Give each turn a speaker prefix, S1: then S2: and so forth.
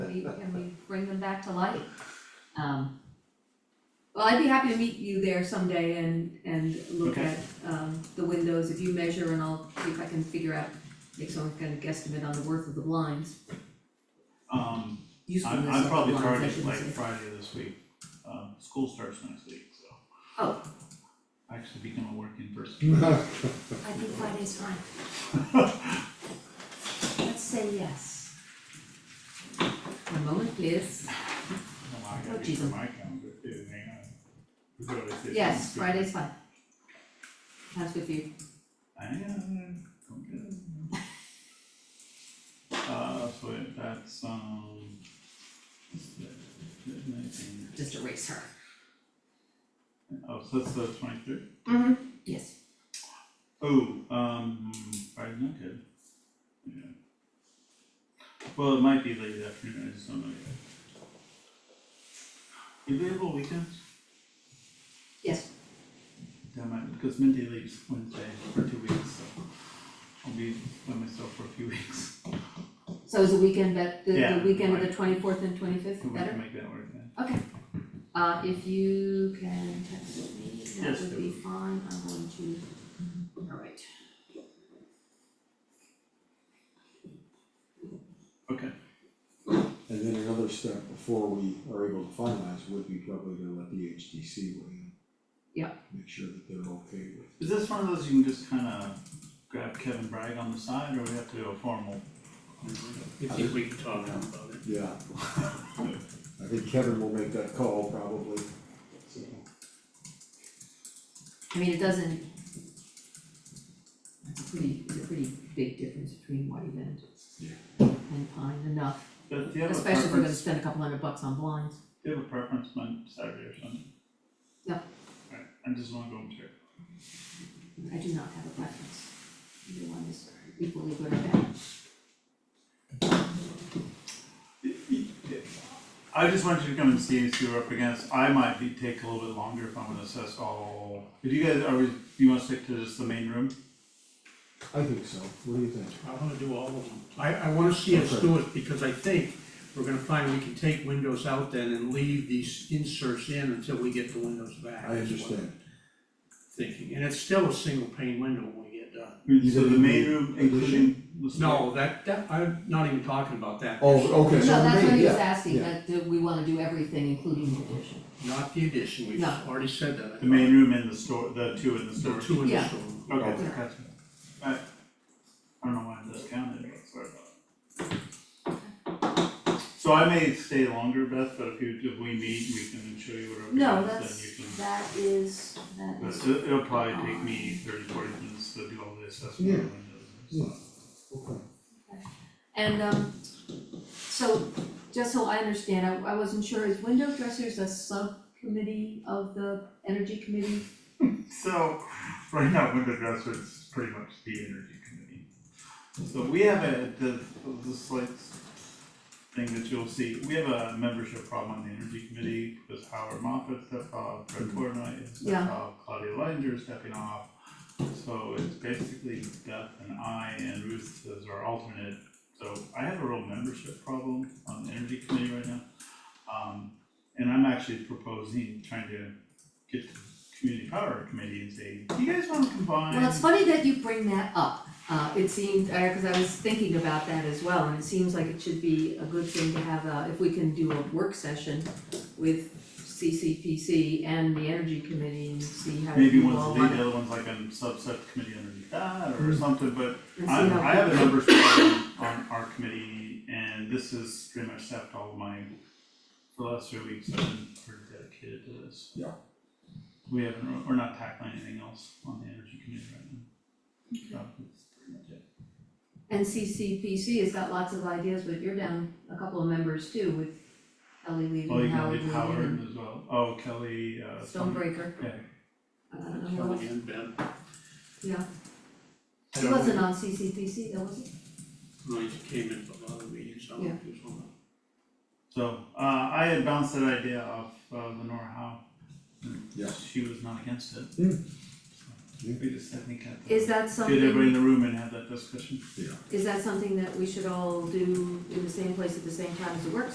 S1: back to life. Um, well, I'd be happy to meet you there someday and, and look
S2: Okay.
S1: at, um, the windows, if you measure and I'll see if I can figure out, make some kind of guesstimate on the worth of the blinds,
S2: Um,
S1: usefulness
S2: I'm,
S1: of
S2: I'm
S1: the
S2: probably
S1: blinds, I
S2: targeting
S1: shouldn't
S2: like
S1: say.
S2: Friday this week, um, school starts next week, so.
S1: Oh.
S2: I Actually become a work in person.
S3: Well,
S1: I think Friday's fine. Let's say yes. One moment, please.
S2: No, I
S1: Oh,
S2: gotta be
S1: Jesus.
S2: for my calendar too, hang on. We go to this
S1: Yes,
S2: next week.
S1: Friday's fine. That's with you.
S2: Hang on, don't go. Uh, so it- that's, um, what's that? Midnight and-
S1: Just erase her.
S2: oh, so that's the twenty-third?
S1: Mm-hmm. Yes.
S2: Oh, um, Friday's not good. Yeah. Well, it might be late afternoon, I just don't know yet. You available weekends?
S1: Yes.
S2: That might, because Mindy leaves Wednesday for two weeks, so I'll be by myself for a few weeks.
S1: So is the weekend that, the, the
S2: Yeah,
S1: weekend of the
S2: right.
S1: twenty-fourth and twenty-fifth
S2: So we
S1: better?
S2: can make that work then.
S1: Okay. Uh, if you can text me, that
S2: Yes,
S1: would
S2: I
S1: be
S2: will.
S1: fine, I'm going to, alright.
S2: Okay,
S3: And then another step before we are able to finalize would be probably to let the HDC weigh in.
S1: Yeah.
S3: Make sure that they're okay with.
S2: is this one of those you can just kinda grab Kevin Bragg on the side, or we have to do a formal?
S4: You think we can talk about it?
S3: Yeah. I think Kevin will make that call probably, so.
S1: I mean, it doesn't. It's a pretty, it's a pretty big difference between white and
S3: Yeah.
S1: and pine enough,
S2: But do you have a
S1: especially if we're gonna
S2: preference,
S1: spend a couple hundred bucks on blinds.
S2: do you have a preference on Saturday or Sunday?
S1: No.
S2: Alright, I just wanna go and check.
S1: I do not have a preference. Either one is equally good or bad.
S2: I just wanted you to come and see us, you were up against, I might be, take a little bit longer if I'm gonna assess all, if you guys, are we, you wanna stick to just the main room?
S3: I think so, what do you think?
S4: I wanna do all of them. I, I wanna see us do it, because I think we're gonna find we can take windows out then and leave these inserts in until we get the windows back.
S3: I
S4: is what I'm
S3: understand,
S4: Thinking, and it's still a single pane window when we get done.
S2: So the main room including the stair-
S4: No, that, that, I'm not even talking about that.
S3: oh, okay,
S1: No,
S3: so the
S1: that's what
S3: main,
S1: he was
S3: yeah,
S1: asking,
S3: yeah.
S1: that do we wanna do everything, including the addition.
S4: Not the addition, we've
S1: No.
S4: already said that. I
S2: The main room and the store, the two in the
S4: thought.
S2: store.
S4: The two in the
S1: Yeah.
S4: store.
S2: Okay,
S1: Yeah.
S2: gotcha. I, I don't know why I discounted, but sorry about it. So I may stay longer, Beth, but if you, if we meet, we can show you whatever.
S1: No,
S2: it is,
S1: that's,
S2: Then you can,
S1: that is, that is.
S2: that's, it- it'll probably take me thirty, forty minutes to do all the assessment
S3: Yeah.
S2: of windows and stuff.
S3: Okay.
S1: And um, so, just so I understand, I I wasn't sure, is window dressers a subcommittee of the energy committee?
S2: So, right now, window dresser is pretty much the energy committee. So we have a, the, the slight thing that you'll see, we have a membership problem on the energy committee, because Howard Moffett stepped off, Fred Portnoy
S1: Yeah.
S2: stepped off, Claudia Leininger is stepping off. So it's basically Beth and I and Ruth as our alternate, so I have a real membership problem on the energy committee right now. Um, and I'm actually proposing, trying to get the community power committee and say, "Do you guys wanna combine?
S1: Well, it's funny that you bring that up, uh, it seemed, uh 'cause cause I was thinking about that as well, and it seems like it should be a good thing to have a, if we can do a work session with CCPC and the energy committee and see how
S2: Maybe
S1: you
S2: one's
S1: all
S2: the lead,
S1: want
S2: the
S1: it,
S2: other one's like a subset committee underneath that or something, but
S1: and see
S2: I,
S1: how.
S2: I have a numbers problem on our committee and this is pretty much sapped all of my, for the last three weeks, I've been pretty dedicated to this.
S3: Yeah.
S2: We haven't, we're not tackling anything else on the energy committee right now. So that's pretty much it.
S1: And CCPC has got lots of ideas, but you're down a couple of members too with Ellie leaving,
S2: Well, Oh, you can
S1: Howard
S2: leave
S1: leaving.
S2: Howard as well, oh, Kelly, uh.
S1: Stonebreaker,
S2: Yeah,
S1: I don't know who else,
S4: Kelly and Ben.
S1: yeah,
S4: I
S1: he
S4: don't know.
S1: wasn't on CCPC though, was he?
S4: No, he came in for a lot of meetings, I don't know if he was on that.
S2: so, uh, I had bounced that idea off, uh, Lenora Howe.
S3: Yeah.
S2: She was not against it.
S3: Yeah.
S2: So, We just, I think, had to
S1: Is that
S2: get everybody in
S1: something,
S2: the room and have that discussion.
S1: is that something that we should all do in the same place at the same time as the work